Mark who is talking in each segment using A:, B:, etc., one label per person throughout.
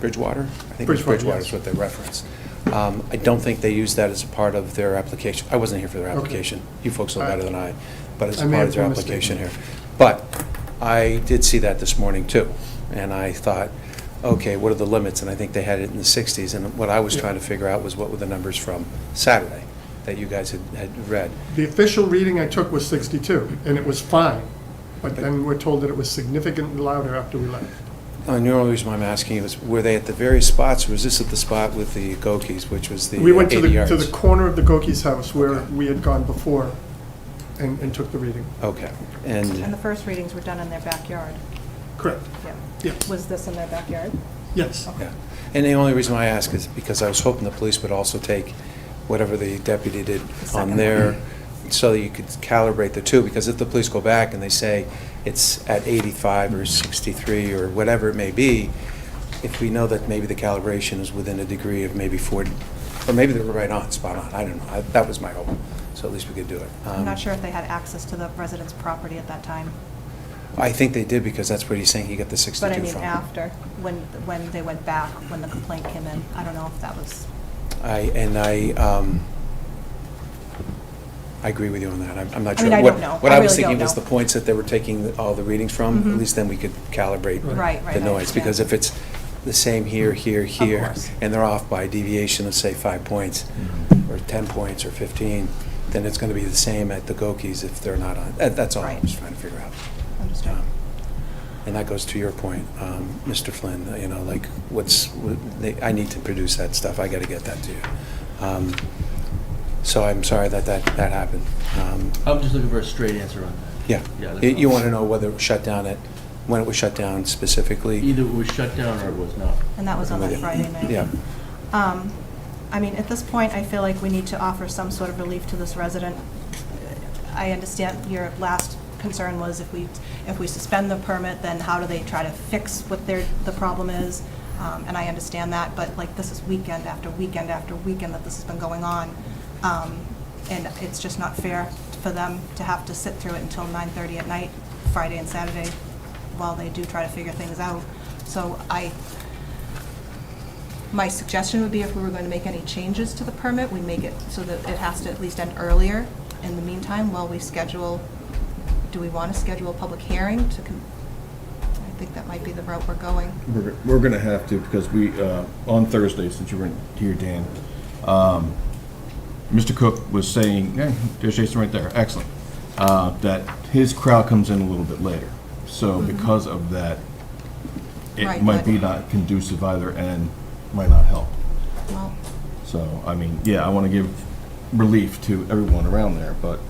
A: Bridgewater? I think it was
B: Bridgewater,
A: Bridgewater
B: yes.
A: is what they referenced. Um, I don't think they use that as a part of their application. I wasn't here for their
B: Okay.
A: application. You folks know
B: I-
A: better than I, but it's
B: I
A: a
B: may
A: part
B: have
A: of their
B: been
A: application
B: mistaken.
A: here. But I did see that this morning too, and I thought, okay, what are the limits? And I think they had it in the 60s, and what I was
B: Yeah.
A: trying to figure out was what were the numbers from Saturday that you guys had, had read.
B: The official reading I took was 62, and it was fine, but then we're told that it was significantly louder after we left.
A: And Uh, the only reason why I'm asking you is, were they at the various spots, or was this at the spot with the Gokis, which was the
B: We went to
A: 80
B: the, to
A: yards?
B: the corner of the Gokis' house where
A: Okay.
B: we had gone before and, and took the reading.
A: Okay,
C: And the
A: and,
C: first readings were done in their backyard.
B: Correct.
C: Yeah.
B: Yeah,
C: Was this in their backyard?
B: yes.
A: yeah. And the only reason why I ask is because I was hoping the police would also take whatever the deputy did
C: The
A: on
C: second
A: there, so that you could calibrate the two, because if the police go back and they say it's at 85 or 63 or whatever it may be, if we know that maybe the calibration is within a degree of maybe 40, or maybe they were right on, spot on, I don't know, I- that was my hope, so at least we could do it.
C: I'm
A: Um,
C: not sure if they had access to the resident's property at that time.
A: I think they did, because that's what he's saying he got the 62
C: But I
A: from.
C: mean, after, when, when they went back, when the complaint came in, I don't know if that was,
A: I, and I, um, I agree with you on that. I'm I'm not
C: I
A: sure.
C: mean, I
A: What-
C: don't know.
A: What
C: I
A: I was
C: really don't
A: thinking was the
C: know.
A: points that they were taking all the readings from, at
C: Mhm.
A: least then we could calibrate
C: right, right.
A: the
C: I
A: noise. Because
C: understand.
A: if it's the same here, here, here,
C: course.
A: and they're off by a deviation of, say, five points, or 10 points, or 15, then it's going to be the same at the Gokis if they're not on. that- That's all I
C: Right.
A: was trying to figure out.
C: Understood.
A: Um, And that goes to your point, um, Mr. Flynn, you know, like, what's, what- they- I need to produce that stuff, I got to get that to you. Um, So I'm sorry that that, that happened. Um,
D: I'm just looking for a straight answer on that.
A: Yeah,
D: Yeah, that's
A: You- you
D: all.
A: want to know whether it was shut down at, when it was shut down specifically?
D: Either it was shut down or it was not.
C: And that was on that Friday night.
A: Yeah,
C: Um, I mean, at this point, I feel like we need to offer some sort of relief to this resident. I understand your last concern was if we, if we suspend the permit, then how do they try to fix what their, the problem is? Um, And I understand that, but like, this is weekend after weekend after weekend that this has been going on. Um, And it's just not fair for them to have to sit through it until 9:30 at night, Friday and Saturday, while they do try to figure things out. So I, my suggestion would be if we were going to make any changes to the permit, we make it so that it has to at least end earlier. In the meantime, while we schedule, do we want to schedule a public hearing to, con- I think that might be the route we're going.
E: We're, we're gonna have to, because we, uh, on Thursday, since you weren't here, Dan, um, Mr. Cook was saying, eh, there's Jason right there, excellent, uh, that his crowd comes in a little bit later. So because of that, it
C: Mm-hmm. Right,
E: might
C: but-
E: be not conducive either and might not help.
C: Well,
E: So, I mean, yeah, I wanna give relief to everyone around there, but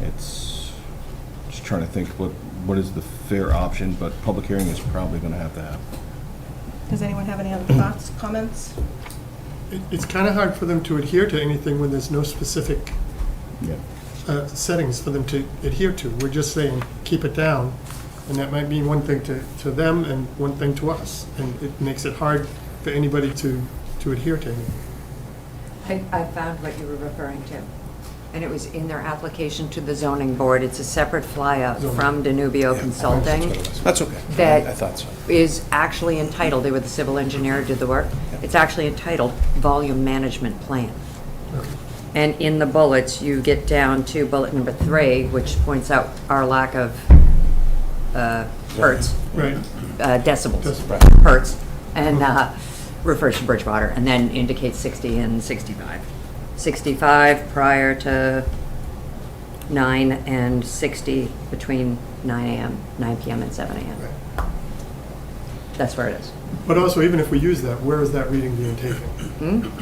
E: it's, just trying to think what, what is the fair option, but public hearing is probably gonna have to happen.
C: does anyone have any other thoughts, comments?
B: It- It's kind of hard for them to adhere to anything when there's no specific
E: Yeah.
B: uh, settings for them to adhere to. We're just saying, keep it down, and that might mean one thing to, to them and one thing to us, and it makes it hard for anybody to, to adhere to anything.
F: I, I found what you were referring to, and it was in their application to the zoning board. It's a separate flyout from Danubio Consulting,
A: that's okay. I-
F: That-
A: I thought so.
F: is actually entitled, they were the civil engineer who did the work, it's actually entitled Volume Management Plan. And in the bullets, you get down to bullet number three, which points out our lack of uh, hertz
B: Right.
F: uh, decibels,
B: Decibels.
F: hertz, and uh, refers to Bridgewater, and then indicates 60 and 65. 65 prior to 9 and 60 between 9 AM, 9 PM, and 7 AM. That's where it is.
B: But also, even if we use that, where is that reading being taken?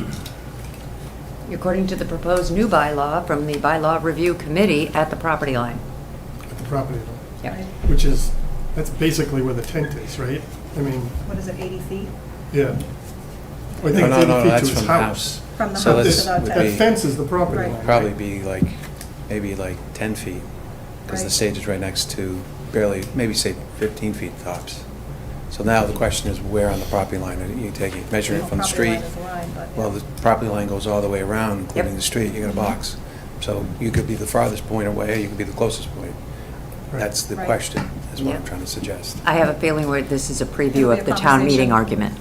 F: According to the proposed new bylaw from the Bylaw Review Committee at the property line.
B: At the property line,
F: Yep.
B: which is, that's basically where the tent is, right? I mean,
C: What is it, 80 feet?
B: yeah. I think
A: No, no,
B: it's
A: no,
B: 80 feet
A: that's
B: to his
A: from
B: house.
A: house.
C: From the
A: So
C: house
A: this
B: This-
C: to the
A: would
B: That
A: be-
B: fence is the property
C: Right.
B: line.
A: Probably
B: right?
A: be like, maybe like 10 feet, because the
C: Right.
A: stage is right next to barely, maybe say 15 feet tops. So now the question is, where on the property line are you taking? Measuring it from the street? Well, the property line goes all the way around, including
F: Yep.
A: the street, you got a box. So you could be the farthest point away, or you could be the closest point.
B: Right.
A: That's the
C: Right.
A: question, is what I'm
F: Yeah.
A: trying to suggest.
F: I have a feeling where this is a
C: It'll
F: preview
C: be a
F: of the town
C: conversation.
F: meeting argument.